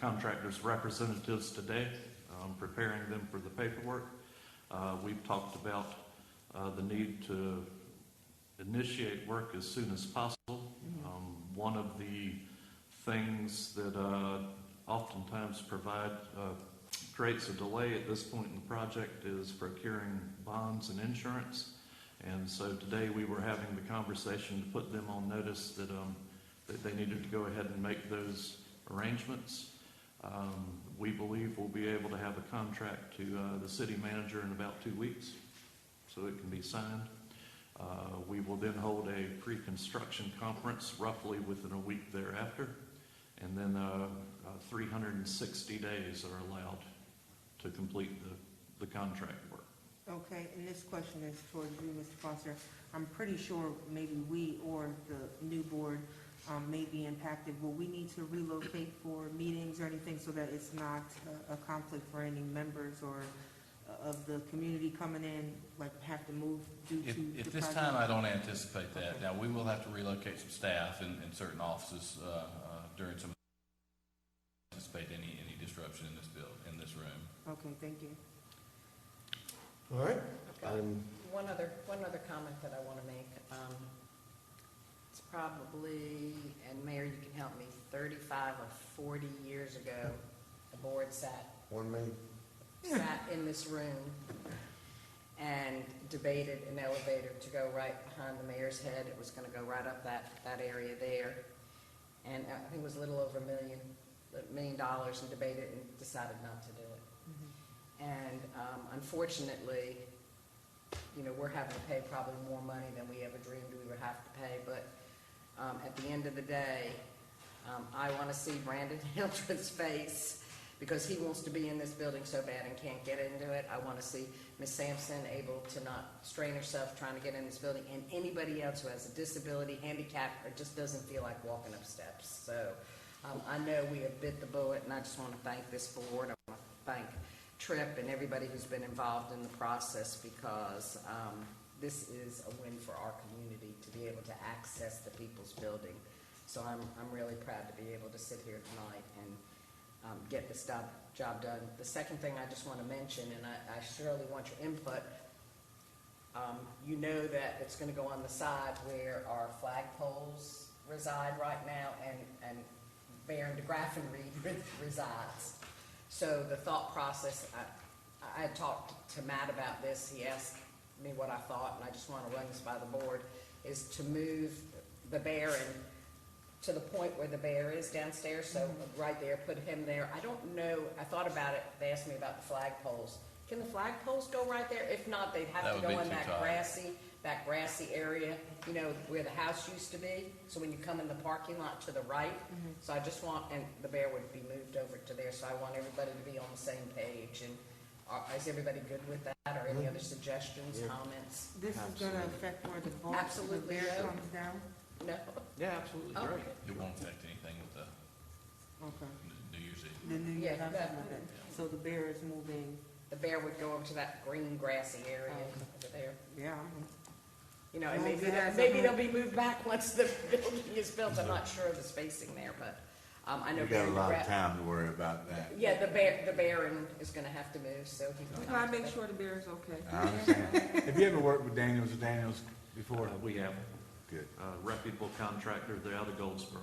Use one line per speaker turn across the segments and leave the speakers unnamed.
contractors' representatives today, um, preparing them for the paperwork. Uh, We've talked about uh, the need to initiate work as soon as possible. Um, One of the things that uh, oftentimes provide, uh, creates a delay at this point in the project is procuring bonds and insurance. And so today, we were having the conversation to put them on notice that, um, that they needed to go ahead and make those arrangements. Um, We believe we'll be able to have a contract to uh, the city manager in about two weeks, so it can be signed. Uh, We will then hold a pre-construction conference roughly within a week thereafter, and then uh, uh, 360 days are allowed to complete the, the contract work.
Okay, and this question is towards you, Mr. Foster. I'm pretty sure maybe we or the new board um, may be impacted. Will we need to relocate for meetings or anything so that it's not a- a conflict for any members or uh, of the community coming in, like have to move due to
If,
the
if this
project?
time, I don't anticipate that.
Okay.
Now, we will have to relocate some staff in, in certain offices, uh, uh, during some, anticipate any, any disruption in this bill, in this room.
Okay, thank you.
All right,
Okay.
I'm,
One other, one other comment that I want to make. Um, It's probably, and Mayor, you can help me, 35 or 40 years ago, the board sat,
one minute,
sat in this room and debated an elevator to go right behind the mayor's head. It was going to go right up that, that area there. And uh, I think it was a little over a million, a million dollars and debated and decided not to do it.
Mm-hmm.
And um, unfortunately, you know, we're having to pay probably more money than we ever dreamed we would have to pay. But um, at the end of the day, um, I want to see Brandon Hilton's face because he wants to be in this building so bad and can't get into it. I want to see Ms. Sampson able to not strain herself trying to get in this building and anybody else who has a disability, handicap, or just doesn't feel like walking up steps. So um, I know we have bit the bullet and I just want to thank this board. I want to thank Trip and everybody who's been involved in the process because um, this is a win for our community to be able to access the people's building. So I'm, I'm really proud to be able to sit here tonight and um, get this job, job done. The second thing I just want to mention, and I I surely want your input, um, you know that it's gonna go on the side where our flagpoles reside right now and, and Baron de Graffenried re- resides. So the thought process, I, I had talked to Matt about this, he asked me what I thought, and I just wanna run this by the board, is to move the Baron to the point where the bear is downstairs, so
Mm-hmm.
right there, put him there. I don't know, I thought about it, they asked me about the flagpoles. Can the flagpoles go right there? If not, they'd
That
have to
would be
go in
too
that
tight.
grassy, that grassy area, you know, where the house used to be. So when you come in the parking lot to the right, so I just want, and the bear would be moved over to there, so I want everybody to be on the same page. And are- is everybody good with that, or
Mm-hmm.
any other suggestions,
Yeah.
comments?
Mm-hmm. This is going to affect where the vault, the
Absolutely,
bear
yeah.
comes down?
No?
yeah, absolutely,
Oh,
great.
It won't affect anything with the
Okay.
New Year's Eve.
The new,
Yeah,
that's
that-
what it- so the bear is moving,
The bear would go over to that green grassy area
Oh,
over there.
yeah, I'm-
You know, and
Well,
maybe,
it
they'll-
has a
maybe
whole-
they'll be moved back once the building is built, I'm not sure of the spacing there, but, um, I know.
You got a
Barron
lot of
Gra-
time to worry about that.
Yeah, the bear, the Baron is gonna have to move, so he's.
Oh,
We
gonna
gotta
have to
make
go.
sure the bear's okay.
I understand. Have you ever worked with Daniels or Daniels
Uh,
before?
We have
Good,
a reputable contractor, they're out of Goldsboro.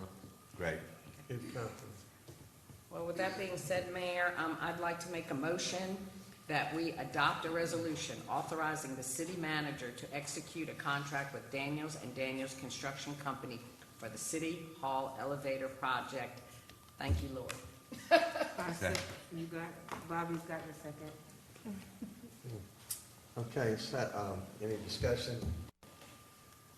great.
Good conference.
Well, with that being said, Mayor, um, I'd like to make a motion that we adopt a resolution authorizing the city manager to execute a contract with Daniels and Daniels Construction Company for the city hall elevator project. Thank you, Lord.
I
Second.
sec- You got, Bobby's got a second.
Okay, so, um, any discussion?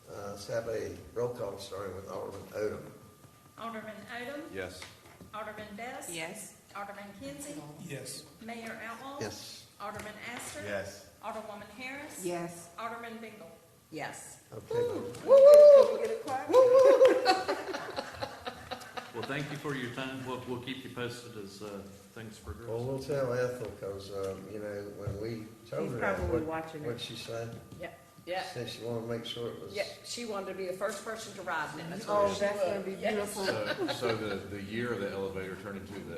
Uh, let's have a roll call starting with Alderman Odom.
Alderman Odom.
Yes.
Alderman Best.
Yes.
Alderman Kinsey.
Yes.
Mayor
Oh.
Outlaw.
Yes,
Alderman Astor.
Yes.
Alderwoman Harris.
Yes.
Alderman Bingle.
Yes.
okay, motion
Well, thank you for your time, we'll, we'll keep you posted as uh, things progress.
Well, we'll tell Ethel, because, um, you know, when we told
He's
her that,
probably
what,
watching
what'd
it.
she say?
Yeah, yeah,
Said she wanted to make sure it was.
yeah. She wanted to be the first person to ride in it. That's
Oh,
what she
that's gonna
would.
be
Yes.
beautiful.
So, so the, the year of the elevator turned into the